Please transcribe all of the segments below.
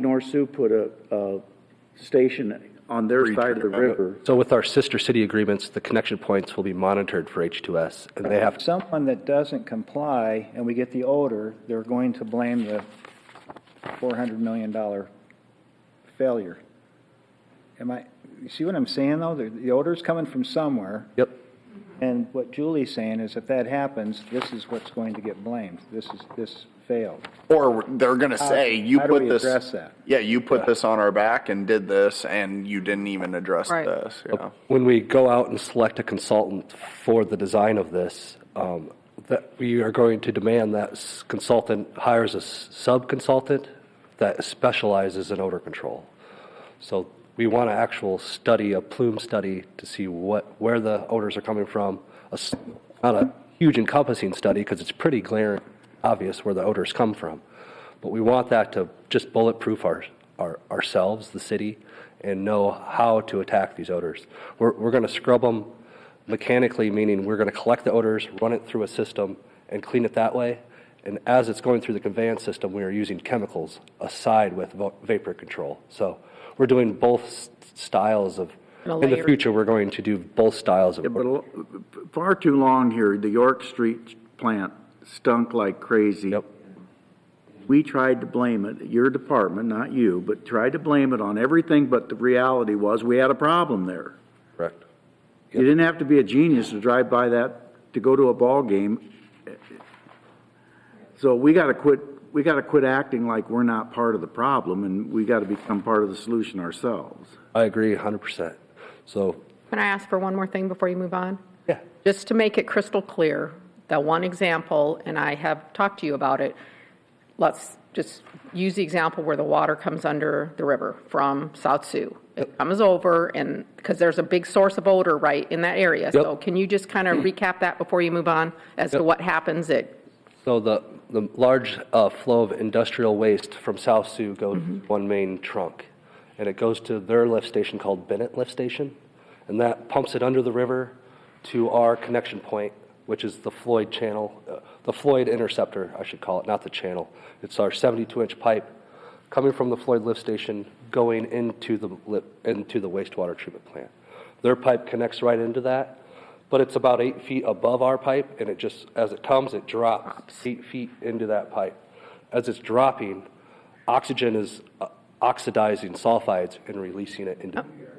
North Sioux put a, a station on their side of the river. So with our sister city agreements, the connection points will be monitored for H2S, and they have, Someone that doesn't comply and we get the odor, they're going to blame the four hundred million dollar failure. Am I, you see what I'm saying though? The, the odor's coming from somewhere. yep, And what Julie's saying is if that happens, this is what's going to get blamed. This is, this failed. Or they're gonna say, you how do put we this. address that? Yeah, you put this on our back and did this and you didn't even address Right. this, yeah. when we go out and select a consultant for the design of this, um, that we are going to demand that s- consultant hires a s- sub-consultant that specializes in odor control. So we want an actual study, a plume study, to see what, where the odors are coming from. A s- Not a huge encompassing study, because it's pretty glaring, obvious where the odors come from. But we want that to just bulletproof our, our, ourselves, the city, and know how to attack these odors. We're, we're gonna scrub them mechanically, meaning we're gonna collect the odors, run it through a system, and clean it that way. And as it's going through the conveyance system, we are using chemicals aside with va- vapor control. So we're doing both s- styles of, And a in the layer. future, we're going to do both styles of. But a- far too long here, the York Street plant stunk like crazy. Yep. We tried to blame it, your department, not you, but tried to blame it on everything, but the reality was we had a problem there. Correct. You didn't have to be a genius to drive by that, to go to a ball game. So we gotta quit, we gotta quit acting like we're not part of the problem and we gotta become part of the solution ourselves. I agree hundred percent. So, Can I ask for one more thing before you move on? Yeah. Just to make it crystal clear, that one example, and I have talked to you about it, let's just use the example where the water comes under the river from South Sioux. It comes over and, because there's a big source of odor right in that area. So can you just kind of recap that before you move on as to Yep. what happens at so the, the large uh, flow of industrial waste from South Sioux goes one main trunk. And it goes to their lift station called Bennett Lift Station. And that pumps it under the river to our connection point, which is the Floyd channel, uh, the Floyd interceptor, I should call it, not the channel. It's our seventy-two inch pipe coming from the Floyd lift station, going into the, lip- into the wastewater treatment plant. Their pipe connects right into that, but it's about eight feet above our pipe, and it just, as it comes, it drops eight feet into that pipe. As it's dropping, oxygen is uh, oxidizing sulfides and releasing it into, the air.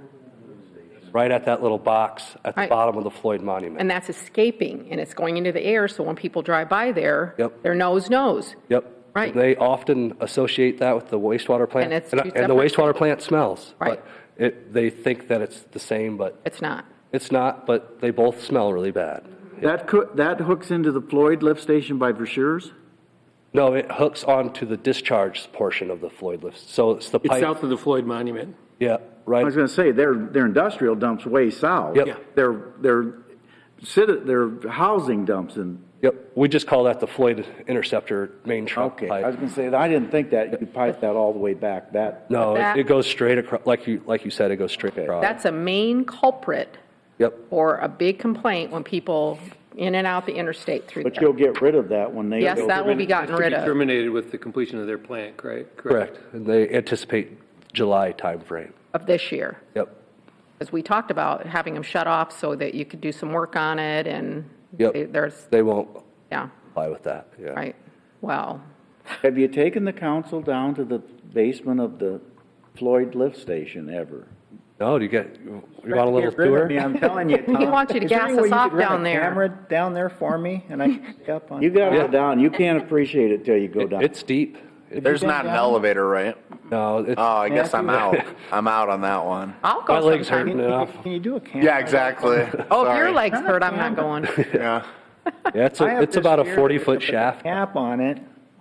right at that little box at the Right. bottom of the Floyd monument. And that's escaping, and it's going into the air, so when people drive by there, Yep. their nose knows. Yep. Right. They often associate that with the wastewater plant. And it's two and the separate- wastewater plant smells. but Right. It, they think that it's the same, but It's not. It's not, but they both smell really bad. That coo- that hooks into the Floyd lift station by Verschure's? No, it hooks onto the discharge portion of the Floyd lift. So it's the It's pipe. south of the Floyd Monument. Yeah, I was right. gonna say, their, their industrial dumps way south. Yep. Yeah. Their, their, citi- their housing dumps in. Yep. We just call that the Floyd interceptor main trunk Okay, I was pipe. gonna say, I didn't think that, you could pipe that all the way back, that. No, That- it, it goes straight across. Like you, like you said, it goes straight across. That's a main culprit yep. or a big complaint when people in and out the interstate through But you'll there. get rid of that when they. Yes, that will be gotten rid To be of. terminated with the completion of their plant, correct? Correct. And they anticipate July timeframe. of this year. Yep. As we talked about, having them shut off so that you could do some work on it and Yep. they- there's, They won't yeah, comply with that. Yeah. right. Wow. Have you taken the council down to the basement of the Floyd lift station ever? No, do you get? You want a little Get rid of tour? me, I'm telling you, Tom. wants you to Is there gas any way us you could off run a down there. Camera down there for me and I can pick up on. You gotta go down, you can't appreciate it till you go It- down. it's deep. It- There's been not an down? elevator, right? no, it's, Oh, I guess I'm out. Matthew? I'm out on that one. I'll go my legs sometime. hurting enough. Can you do a camera? Yeah, exactly. Oh, if your Sorry. legs hurt, I'm not going. Yeah. Yeah, it's, I a, have it's this about a fear 40 that foot if I put shaft. a Cap on it,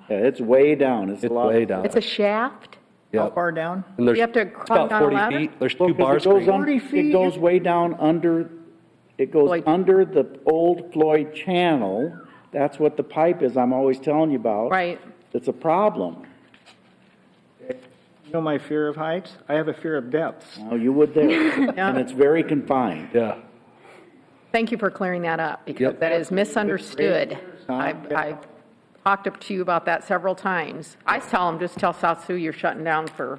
Yeah, it's way down, it's a It's lot. way down. It's a shaft? how Yep. far down? And there's You have to it's climb about down a 40 ladder? feet. There's Well, two 'cause bar it goes screens. un- 40 It feet. goes way down under, it goes Floyd. under the old Floyd channel. That's what the pipe is I'm always telling you about. Right. It's a problem. You know my fear of heights? I have a fear of depths. Oh, you would there. And it's very confined. Yeah. Thank you for clearing that up, because Yep. that is misunderstood. Tom? I've, I've talked up to you about that several times. I tell them, just tell South Sioux you're shutting down for